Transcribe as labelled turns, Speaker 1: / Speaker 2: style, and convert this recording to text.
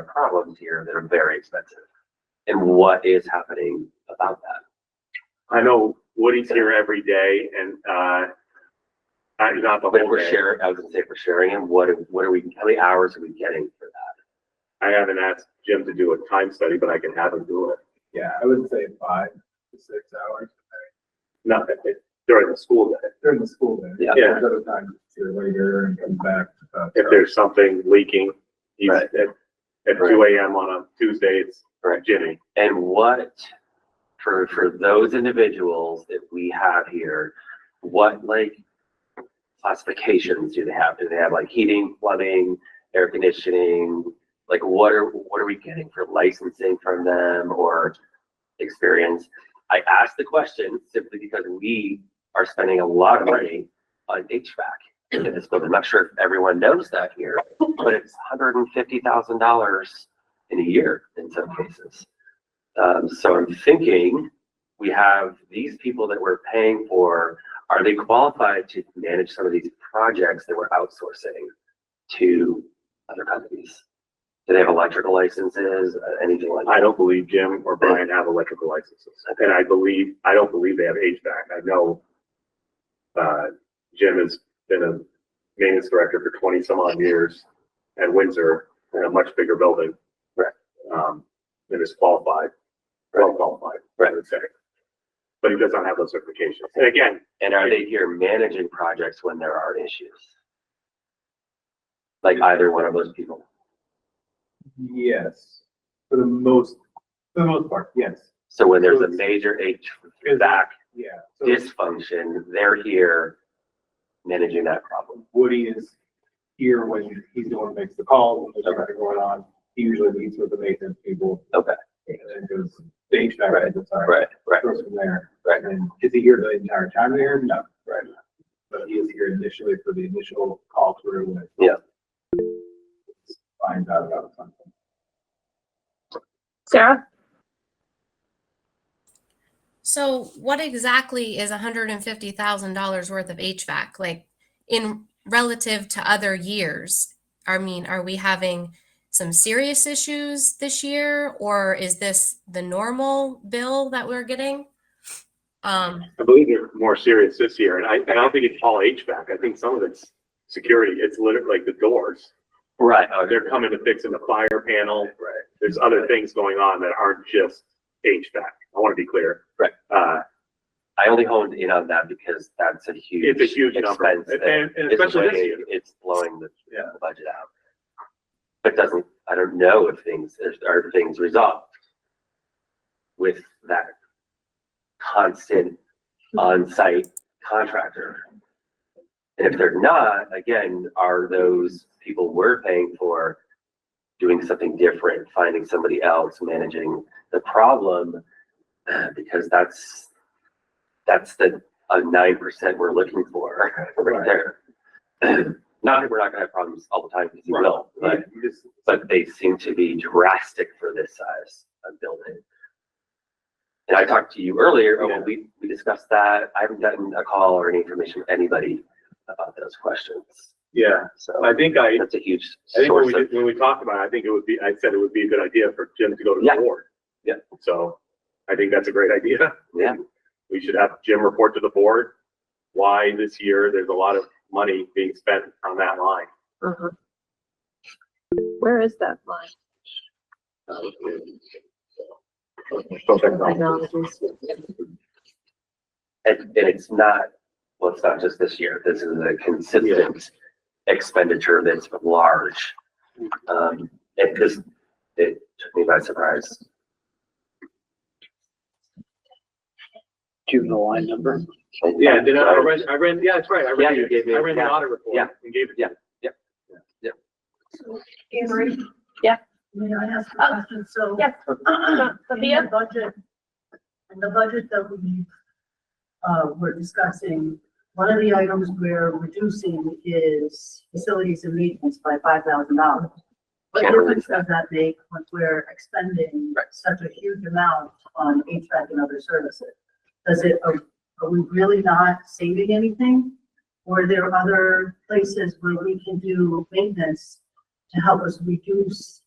Speaker 1: problems here that are very expensive. And what is happening about that?
Speaker 2: I know Woody's here every day and, uh, I, not the
Speaker 1: But if
Speaker 2: whole
Speaker 1: we're
Speaker 2: day.
Speaker 1: sharing, I was gonna say, if we're sharing him, what, what are we, how many hours are we getting for that?
Speaker 2: I haven't asked Jim to do a time study, but I can have him do it.
Speaker 3: Yeah, I would say five to six hours
Speaker 2: Not that it- during the school day.
Speaker 3: during the school day.
Speaker 1: Yeah.
Speaker 2: Yeah.
Speaker 3: Other times you're later and come back. uh,
Speaker 2: If there's something leaking, he's
Speaker 1: Right.
Speaker 2: at, at two AM on a Tuesday, it's
Speaker 1: Right.
Speaker 2: Jimmy.
Speaker 1: And what, for, for those individuals that we have here, what like classifications do they have? Do they have like heating, plumbing, air conditioning? Like what are, what are we getting for licensing from them or experience? I asked the question simply because we are spending a lot of money on HVAC in this building. I'm not sure if everyone knows that here, but it's hundred and fifty thousand dollars in a year in some cases. Um, so I'm thinking, we have these people that we're paying for, are they qualified to manage some of these projects that we're outsourcing to other companies? Do they have electrical licenses, uh, anything like
Speaker 2: I
Speaker 1: that?
Speaker 2: don't believe Jim or Brian have electrical licenses. And I believe, I don't believe they have HVAC. I know, uh, Jim has been a maintenance director for twenty some odd years at Windsor in a much bigger building.
Speaker 1: Right.
Speaker 2: Um, and is qualified, well qualified, I would say. But he does not have those certifications. And again,
Speaker 1: And are they here managing projects when there are issues? Like either one of those people?
Speaker 3: Yes, for the most, for the most part, yes,
Speaker 1: So when there's a major HVAC
Speaker 3: yeah. So
Speaker 1: dysfunction, they're here managing that problem.
Speaker 3: Woody is here when he's the one who makes the calls when there's
Speaker 1: Okay.
Speaker 3: something going on. He usually meets with the maintenance people.
Speaker 1: Okay.
Speaker 3: And then goes, the HVAC,
Speaker 1: Right,
Speaker 3: people, sorry,
Speaker 1: Right, right,
Speaker 3: goes from there.
Speaker 1: Right.
Speaker 3: And is he here the entire time there? No. Right. But he is here initially for the initial call through when.
Speaker 1: Yeah.
Speaker 3: Finds out about something.
Speaker 4: Sarah?
Speaker 5: So what exactly is hundred and fifty thousand dollars worth of HVAC, like in relative to other years? I mean, are we having some serious issues this year or is this the normal bill that we're getting? Um,
Speaker 2: I believe they're more serious this year, and I, and I don't think it's all HVAC. I think some of it's security. It's literally like the doors.
Speaker 1: right.
Speaker 2: Uh, They're coming to fixing the fire panel.
Speaker 1: Right.
Speaker 2: There's other things going on that aren't just HVAC. I want to be clear.
Speaker 1: Right.
Speaker 2: Uh,
Speaker 1: I only honed in on that because that's a huge.
Speaker 2: it's a huge number,
Speaker 1: expense that
Speaker 2: and, and
Speaker 1: is
Speaker 2: especially this
Speaker 1: weighing-
Speaker 2: year.
Speaker 1: It's blowing the
Speaker 3: Yeah.
Speaker 1: the budget out. But doesn't, I don't know if things, if- are things resolved with that constant on-site contractor? And if they're not, again, are those people we're paying for doing something different, finding somebody else, managing the problem? Uh, Because that's, that's the, a nine percent we're looking for, right
Speaker 3: Right.
Speaker 1: there. Not that we're not gonna have problems all the time, because we will, but,
Speaker 3: Yeah, you just-
Speaker 1: but they seem to be drastic for this size of building. And I talked to you earlier, oh, well, we, we discussed that, I haven't gotten a call or any information from anybody about those questions,
Speaker 2: Yeah, I
Speaker 1: so
Speaker 2: think I,
Speaker 1: that's a huge
Speaker 2: I think when
Speaker 1: source
Speaker 2: we,
Speaker 1: of,
Speaker 2: did- when we talked about it, I think it would be, I said it would be a good idea for Jim to go to
Speaker 1: Yeah.
Speaker 2: the board.
Speaker 1: Yeah.
Speaker 2: So I think that's a great idea.
Speaker 1: Yeah.
Speaker 2: We should have Jim report to the board why this year there's a lot of money being spent on that line.
Speaker 4: Uh-huh. Where is that line? Technologies.
Speaker 1: and, and it's not, well, it's not just this year, this is a consistent expenditure that's large. Um, it just, it took me by surprise.
Speaker 6: Do you have the line number?
Speaker 2: Yeah, then I read, I read, yeah, that's right. I
Speaker 1: Yeah,
Speaker 2: read,
Speaker 1: you gave
Speaker 2: it.
Speaker 1: me-
Speaker 2: I read the
Speaker 1: yeah,
Speaker 2: audit report
Speaker 1: yeah,
Speaker 2: and gave it.
Speaker 1: yeah.
Speaker 7: Avery?
Speaker 4: Yeah.
Speaker 7: May I ask a question? So.
Speaker 4: Oh. Yes.
Speaker 7: In the
Speaker 4: Sophia?
Speaker 7: budget, in the budget that we, uh, we're discussing, one of the items we're reducing is facilities and maintenance by five thousand dollars. What
Speaker 1: Can't really-
Speaker 7: difference does that make when we're expending
Speaker 1: Right.
Speaker 7: such a huge amount on HVAC and other services? Does it, are are we really not saving anything? Or are there other places where we can do maintenance to help us reduce